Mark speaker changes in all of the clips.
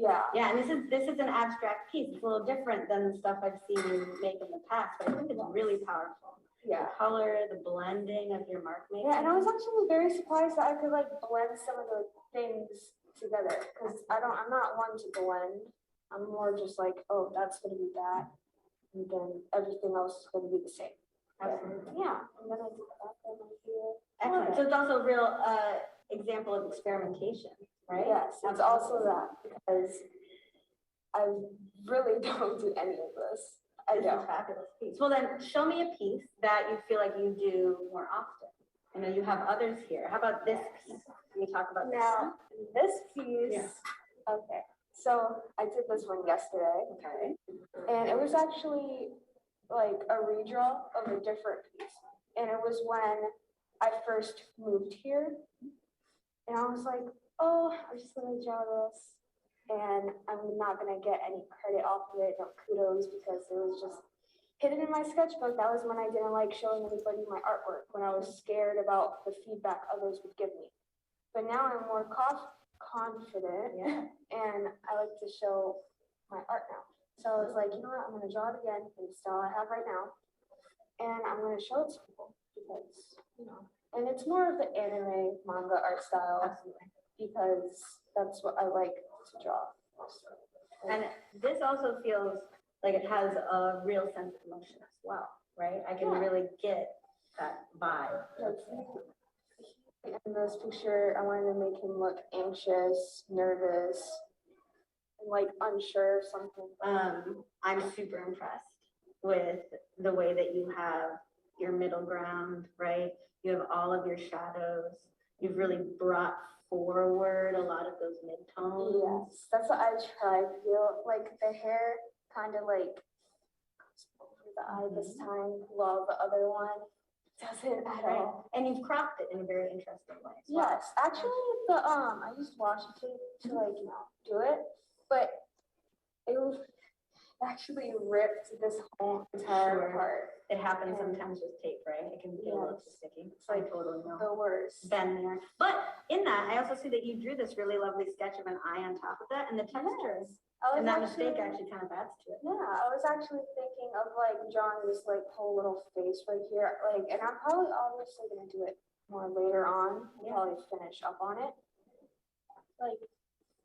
Speaker 1: Yeah.
Speaker 2: Yeah, and this is, this is an abstract piece. It's a little different than the stuff I've seen you make in the past, but I think it's really powerful. The
Speaker 1: Yeah.
Speaker 2: color, the blending of your mark making.
Speaker 1: Yeah, and I was actually very surprised that I could like blend some of the things together because I don't, I'm not one to blend. I'm more just like, oh, that's gonna be that, and then everything else is gonna be the same.
Speaker 2: Absolutely.
Speaker 1: Yeah, and then I did that one right here.
Speaker 2: Excellent. So it's also a real uh, example of experimentation, right?
Speaker 1: Yes, it's also that because I really don't do any of this. I
Speaker 2: This is
Speaker 1: don't.
Speaker 2: fabulous piece. Well, then, show me a piece that you feel like you do more often. I know you have others here. How about this piece? Can you talk about this?
Speaker 1: Now, this piece,
Speaker 2: Yeah.
Speaker 1: okay, so I did this one yesterday.
Speaker 2: Okay.
Speaker 1: And it was actually like a redraw of a different piece. And it was when I first moved here. And I was like, oh, I'm just gonna draw this. And I'm not gonna get any credit off of it, no kudos, because it was just hidden in my sketchbook. That was when I didn't like showing anybody my artwork, when I was scared about the feedback others would give me. But now I'm more conf- confident
Speaker 2: Yeah.
Speaker 1: and I like to show my art now. So I was like, you know what, I'm gonna draw it again, and it's all I have right now, and I'm gonna show it to people because you know, and it's more of the anime manga art style
Speaker 2: Absolutely.
Speaker 1: because that's what I like to draw.
Speaker 2: And
Speaker 1: Oh.
Speaker 2: this also feels like it has a real sense of emotion as well, right? I can
Speaker 1: Yeah.
Speaker 2: really get that vibe.
Speaker 1: Like, he- in this picture, I wanted to make him look anxious, nervous, and like unsure of something.
Speaker 2: Um, I'm super impressed with the way that you have your middle ground, right? You have all of your shadows. You've really brought forward a lot of those midtones.
Speaker 1: Yes, that's what I tried. Feel like the hair kind of like goes over the eye this time, while the other one doesn't at
Speaker 2: Mm-hmm. Right.
Speaker 1: all.
Speaker 2: And you've cropped it in a very interesting way. as well.
Speaker 1: Yes, actually, the um, I used washi tape to
Speaker 2: Mm-hmm.
Speaker 1: like you know do it, but it was actually ripped this whole entire
Speaker 2: Sure.
Speaker 1: part.
Speaker 2: It happens sometimes with tape, right? It can get a little
Speaker 1: Yes.
Speaker 2: sticky.
Speaker 1: It's
Speaker 2: I
Speaker 1: like
Speaker 2: totally know.
Speaker 1: The worst.
Speaker 2: been there. But in that, I also see that you drew this really lovely sketch of an eye on top of that and the textures.
Speaker 1: I
Speaker 2: And that
Speaker 1: was
Speaker 2: mistake
Speaker 1: actually-
Speaker 2: actually kind of adds to it.
Speaker 1: Yeah, I was actually thinking of like drawing this like whole little face right here, like, and I'm probably obviously gonna do it more later on, and
Speaker 2: Yeah.
Speaker 1: probably finish up on it. Like,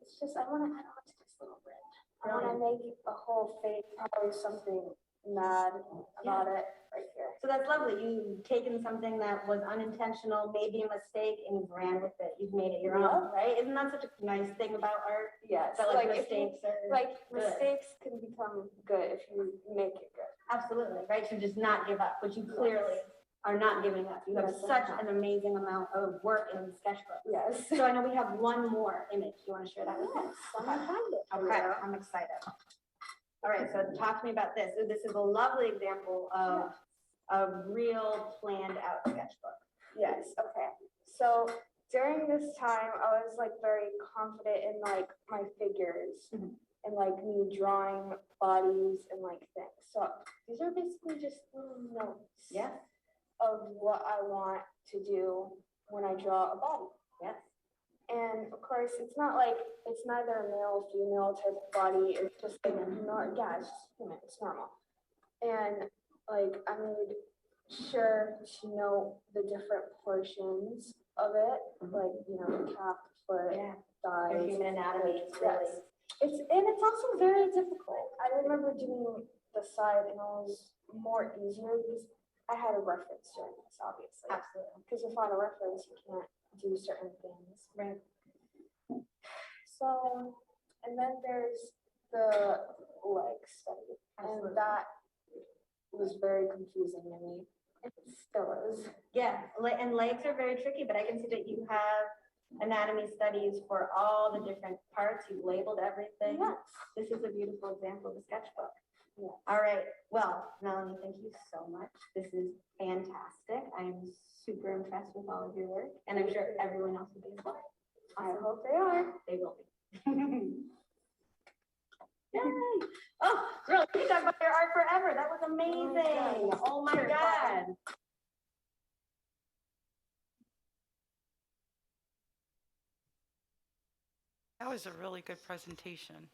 Speaker 1: it's just, I wanna, I don't want this little bit. I wanna make a whole face, probably something mad about it right here.
Speaker 2: So that's lovely. You've taken something that was unintentional, maybe a mistake, and you've ran with it. You've made it your own, right? Isn't that such a nice thing about art?
Speaker 1: Yes,
Speaker 2: That like
Speaker 1: if you-
Speaker 2: mistakes are,
Speaker 1: Like, mistakes can become good if you make it good.
Speaker 2: absolutely, right? To just not give up, which you clearly are not giving up. You have
Speaker 1: Yes, I'm
Speaker 2: such
Speaker 1: not.
Speaker 2: an amazing amount of work in the sketchbook.
Speaker 1: Yes.
Speaker 2: So I know we have one more image. You want to share that with us?
Speaker 1: Yes, I'm gonna find it. for
Speaker 2: Okay,
Speaker 1: you.
Speaker 2: I'm excited. All right, so talk to me about this. So This is a lovely example of a real planned out sketchbook.
Speaker 1: Yes, okay. So during this time, I was like very confident in like my figures
Speaker 2: Mhm.
Speaker 1: and like me drawing bodies and like things. So these are basically just little notes
Speaker 2: Yes,
Speaker 1: of what I want to do when I draw a body.
Speaker 2: yes.
Speaker 1: And of course, it's not like it's neither a male, female type of body. It's just like nor yeah, it's just human. It's normal. And like I made sure to know the different portions of it,
Speaker 2: Mhm.
Speaker 1: like you know, the cap, foot,
Speaker 2: Yeah, your
Speaker 1: thighs.
Speaker 2: human anatomy is really,
Speaker 1: Yes. It's and it's also very difficult. I remember doing the side, and it was more easier because I had a reference during this, obviously.
Speaker 2: absolutely.
Speaker 1: Because without a reference, you can't do certain things.
Speaker 2: Right.
Speaker 1: So, and then there's the leg study,
Speaker 2: Absolutely.
Speaker 1: and that was very confusing to me. It still is.
Speaker 2: Yeah, le- and legs are very tricky, but I can see that you have anatomy studies for all the different parts. You've labeled everything.
Speaker 1: Yes.
Speaker 2: This is a beautiful example of a sketchbook.
Speaker 1: Yeah.
Speaker 2: All right, well, Melanie, thank you so much. This is fantastic. I am super impressed with all of your work, and I'm sure everyone else will be as well.
Speaker 1: I hope they are.
Speaker 2: They will be. Yay! Oh, girl, we could talk about your art forever. That was amazing.
Speaker 1: God.
Speaker 2: Oh my
Speaker 1: Oh Sure.
Speaker 2: God.
Speaker 3: Oh, That was a really good presentation.